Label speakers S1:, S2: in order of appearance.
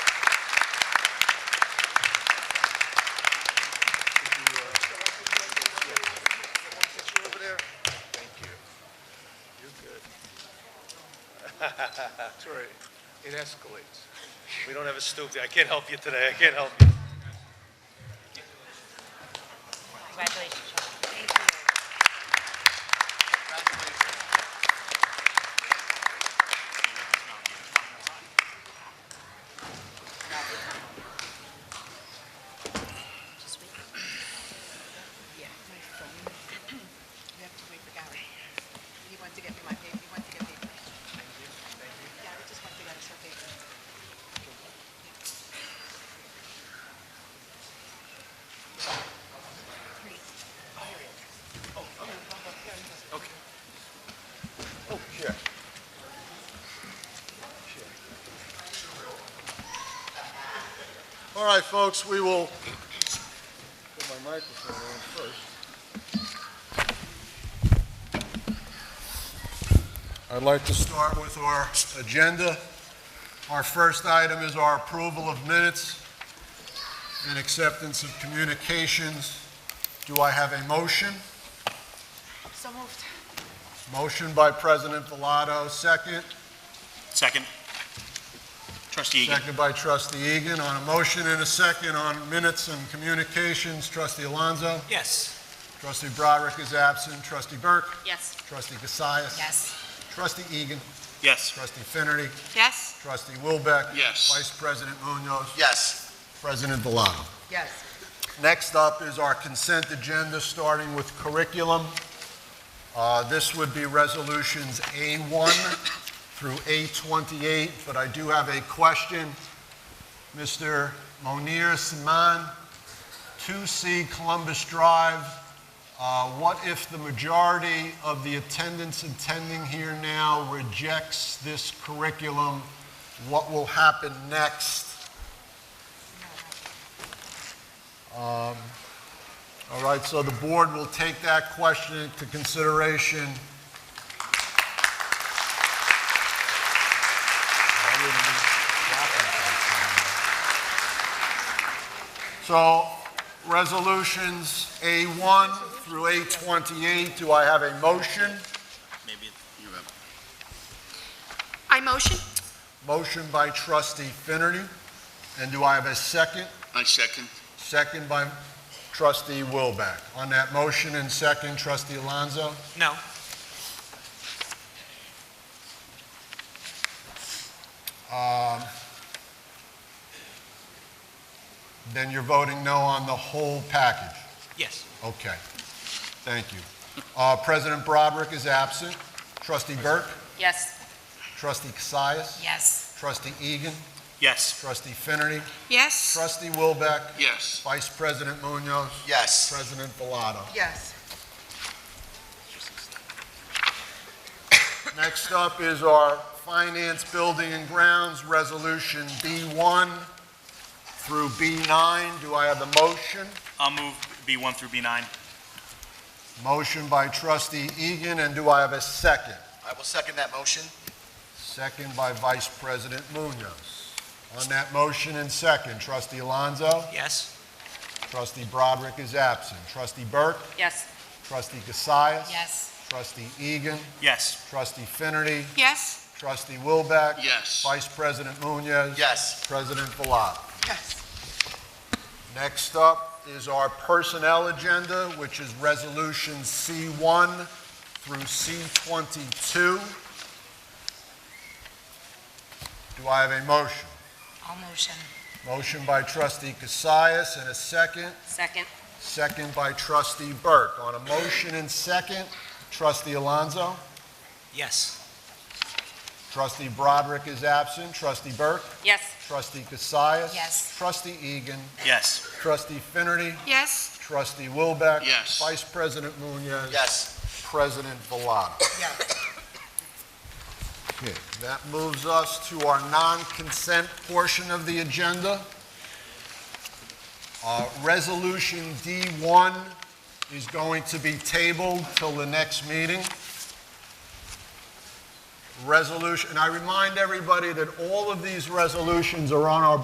S1: That's right. It escalates.
S2: We don't have a stoop there. I can't help you today. I can't help you.
S3: Congratulations, Sean. Just wait.
S4: Yeah, my phone. You have to wait for Gary. He went to get me my paper, he went to get papers. Gary just went to get us her papers.
S5: All right, folks, we will put my microphone on first. I'd like to start with our agenda. Our first item is our approval of minutes and acceptance of communications. Do I have a motion?
S4: So moved.
S5: Motion by President Villado, second.
S6: Second. Trustee Egan.
S5: Seconded by Trustee Egan. On a motion and a second on minutes and communications, Trustee Alonso.
S6: Yes.
S5: Trustee Broderick is absent. Trustee Burke.
S3: Yes.
S5: Trustee Cassius.
S3: Yes.
S5: Trustee Egan.
S6: Yes.
S5: Trustee Finerty.
S3: Yes.
S5: Trustee Wilbeck.
S6: Yes.
S5: Vice President Munoz.
S6: Yes.
S5: President Villano.
S4: Yes.
S5: Next up is our consent agenda, starting with curriculum. Uh, This would be resolutions A1 through A28, but I do have a question. Mr. Monir Simon, 2C Columbus Drive, uh, what if the majority of the attendants attending here now rejects this curriculum? What will happen next? All right, so the board will take that question into consideration. So resolutions A1 through A28, do I have a motion?
S6: Maybe you have.
S7: I motion.
S5: Motion by trustee Finerty, and do I have a second?
S6: I second.
S5: Second by trustee Wilbeck. On that motion and second, trustee Alonso?
S6: No.
S5: Um, Then you're voting no on the whole package?
S6: Yes.
S5: Okay. Thank you. Uh, President Broderick is absent. Trustee Burke,
S3: Yes.
S5: trustee Cassius,
S3: Yes.
S5: trustee Egan,
S6: Yes.
S5: trustee Finerty,
S7: Yes.
S5: trustee Wilbeck,
S6: Yes.
S5: vice president Munoz,
S6: Yes.
S5: president Bellato.
S4: Yes.
S5: Next up is our Finance, Building and Grounds, Resolution B1 through B9. Do I have a motion?
S6: I'll move B1 through B9.
S5: Motion by trustee Egan, and do I have a second?
S8: I will second that motion.
S5: Second by Vice President Munoz. On that motion and second, trustee Alonso,
S6: Yes.
S5: trustee Broderick is absent. Trustee Burke,
S3: Yes.
S5: trustee Cassius.
S3: Yes.
S5: Trustee Egan,
S6: Yes.
S5: trustee Finerty,
S7: Yes.
S5: trustee Wilbeck.
S6: Yes.
S5: Vice President Munoz.
S8: Yes,
S5: President Villar.
S4: Yes.
S5: Next up is our personnel agenda, which is Resolution C1 through C22. Do I have a motion?
S3: All motion.
S5: Motion by trustee Cassius and a second,
S3: Second.
S5: second by trustee Burke. On a motion and second, trustee Alonso,
S6: Yes.
S5: trustee Broderick is absent, trustee Burke,
S3: Yes.
S5: trustee Cassius.
S3: Yes.
S5: Trustee Egan,
S6: Yes.
S5: trustee Finerty,
S7: Yes.
S5: trustee Wilbeck.
S6: Yes.
S5: Vice President Munoz.
S8: yes.
S5: President Villado.
S4: Yes.
S5: Okay, That moves us to our non-consent portion of the agenda. Uh, Resolution D1 is going to be tabled till the next meeting. Resolution, and I remind everybody that all of these resolutions are on our